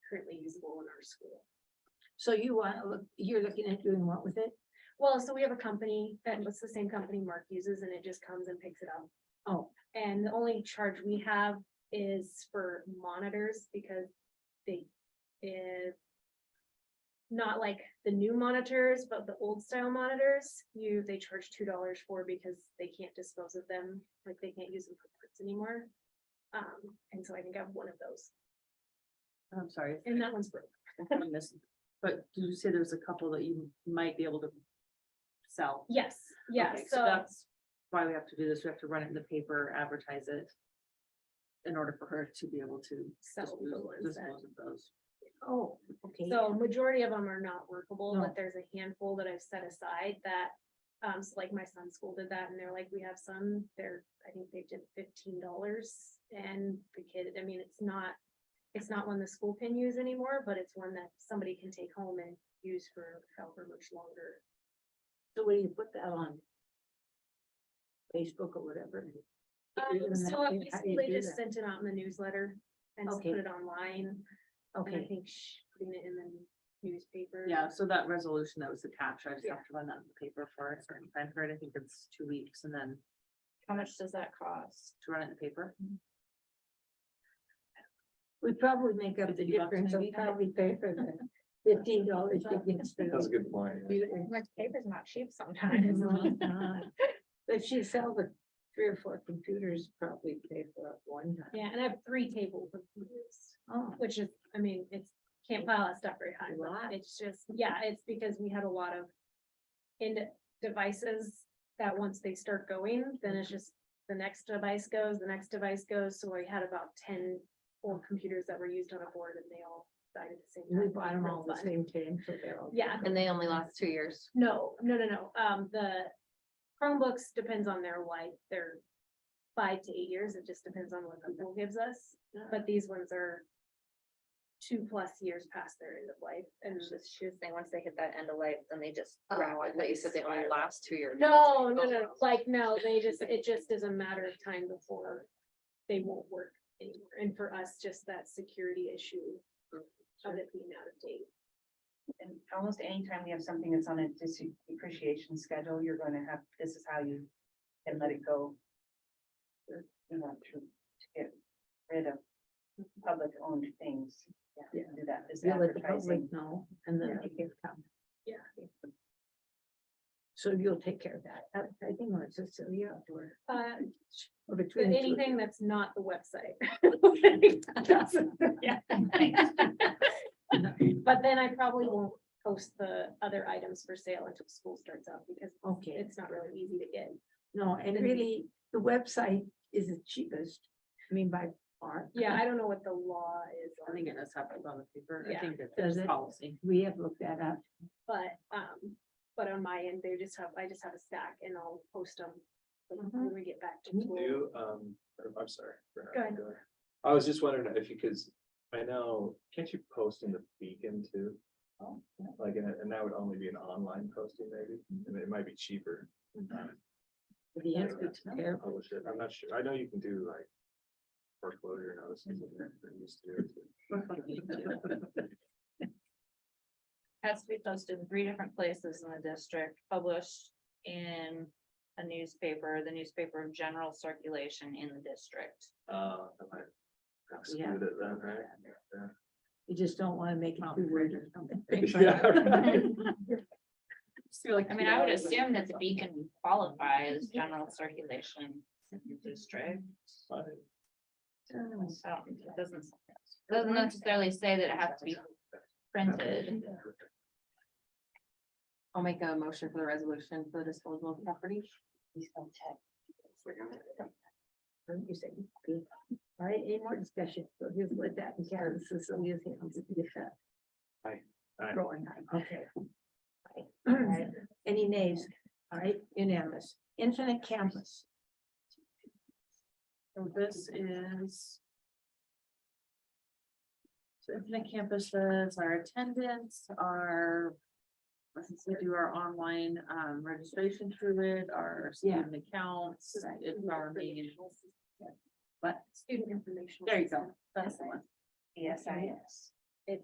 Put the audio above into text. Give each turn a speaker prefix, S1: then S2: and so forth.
S1: our school.
S2: So you want, to look? you're looking at doing what with it?
S1: Well, so we have a company that was the same company Mark uses and it just comes and picks it up.
S2: Oh,
S1: And the only charge we have is for monitors because they is not like the new monitors, but the old style monitors, you, they charge two dollars for because they can't dispose of them, like they can't use them for parts anymore. Um, and so I think I have one of those
S3: I'm sorry,
S1: and that one's broke.
S3: if I missed, but did you say there's a couple that you might be able to sell?
S1: Yes, yeah,
S3: Okay,
S1: so,
S3: That's why we have to do this. We have to run it in the paper, advertise it. In order for her to be able to
S1: Sell the
S3: dispose
S1: ones that-
S3: dispose of those.
S2: oh, okay.
S1: so majority of them are not workable,
S3: No.
S1: but there's a handful that I've set aside that. Um, so like my son's school did that and they're like, we have some, they're, I think they did fifteen dollars and the kid, I mean, it's not. It's not one the school can use anymore, but it's one that somebody can take home and use for however much longer.
S2: So where do you put that on? Facebook or whatever?
S1: Um,
S2: Isn't that-
S1: so I
S2: how do you
S1: basically
S2: do
S1: just
S2: that?
S1: sent it out in the newsletter and just
S2: Okay.
S1: put it online. And I
S2: Okay,
S1: think sh- putting it in the newspaper.
S3: Yeah, so that resolution that was attached, I just
S1: Yeah.
S3: have to run that in the paper for a certain time period. I think it's two weeks and then
S4: How much does that cost?
S3: to run it in the paper.
S2: we probably make up the
S3: Fifty bucks
S2: difference, we
S3: maybe?
S2: probably pay for the fifteen dollars to get.
S5: That's a good point. yeah.
S4: Like paper's not cheap
S2: But she sell the three or four computers, probably pay for it one time.
S1: Yeah, and I have three tables of computers.
S2: Oh,
S1: Which is, I mean, it's, can't file that stuff very high,
S2: Right.
S1: but it's just, yeah, it's because we had a lot of. In devices that once they start going, then it's just the next device goes, the next device goes, so I had about ten. Old computers that were used on a board and they all died at the same time.
S2: we bought them all the
S1: Fun.
S2: same time, so they're all.
S1: Yeah,
S4: And they only last two years.
S1: no, no, no, no, um, the Chromebooks depends on their life, they're. Five to eight years, it just depends on what Google gives us, but these ones are. Two plus years past their end of life and
S4: Just she was saying, once they hit that end of life, then they just.
S2: Oh, I
S4: rapidly
S2: thought you said they only
S4: spiral.
S3: last two years.
S1: No, no, no, like, no, they just, it just is a matter of time before they won't work anymore. And for us, just that security issue of it being out of date.
S6: And almost anytime we have something that's on a dis- depreciation schedule, you're gonna have, this is how you can let it go. You know, to, to get rid of public owned things.
S2: Yeah.
S6: Do that, this
S2: You let the public
S6: advertising.
S2: know and then they can come.
S1: Yeah.
S2: So you'll take care of that. Advertising or it's just a the outdoor.
S1: Uh,
S2: or
S1: but
S2: between the two of you.
S1: anything that's not the website. Yeah. But then I probably won't post the other items for sale until school starts up because
S2: Okay,
S1: it's not really easy to get.
S2: no, and
S1: then-
S2: really, the website is the cheapest, I mean, by far.
S1: Yeah, I don't know what the law is
S3: I
S1: on
S3: think it does have to go on the paper.
S1: Yeah.
S3: I think it's
S2: Does
S3: just
S2: it?
S3: policy.
S2: We have looked that up.
S1: But, um, but on my end, they just have, I just have a stack and I'll post them. When
S2: Mhm.
S1: we get back to.
S2: Can you
S1: school.
S5: Do, um, or- I'm sorry. Bernard,
S1: Mm-hmm. Go ahead.
S5: go ahead. I was just wondering if you, because I know, can't you post in the beacon too?
S1: Oh,
S5: Like, and, and that would only be an online posting maybe,
S1: Mm-hmm.
S5: and it might be cheaper. um,
S2: but the
S5: That's
S2: answer
S5: good
S2: to there-
S5: Publish it. I'm not sure. I know you can do like foreclosure notices. and that, but you used to do it.
S4: Has to be posted in three different places in the district, published in a newspaper, the newspaper of general circulation in the district.
S5: Uh, I might Exclude it then, right? Yeah.
S2: You just don't want to make it too weird or something.
S5: Yeah, right.
S4: I mean, I would assume that the beacon would qualify as general circulation in the district.
S5: Fine.
S4: So it doesn't, doesn't necessarily say that it has to be printed.
S3: I'll make a motion for the resolution for the disposal of property.
S2: Um, you said, good. All right, any more discussion? So here's what that, and Karen, so Sylvia's hands to get that.
S5: Aye. Aye.
S2: Rolling, aye, okay. Any nays? All right, unanimous. Infinite campus.
S3: So this is. So Infinite Campuses, our attendance, our. Since we do our online um registration through it, our
S2: Yeah.
S3: student accounts, um, it's our main.
S1: Informational-
S3: But,
S1: Student information.
S3: there you go, that's the one.
S6: Yes, I,
S2: Yes.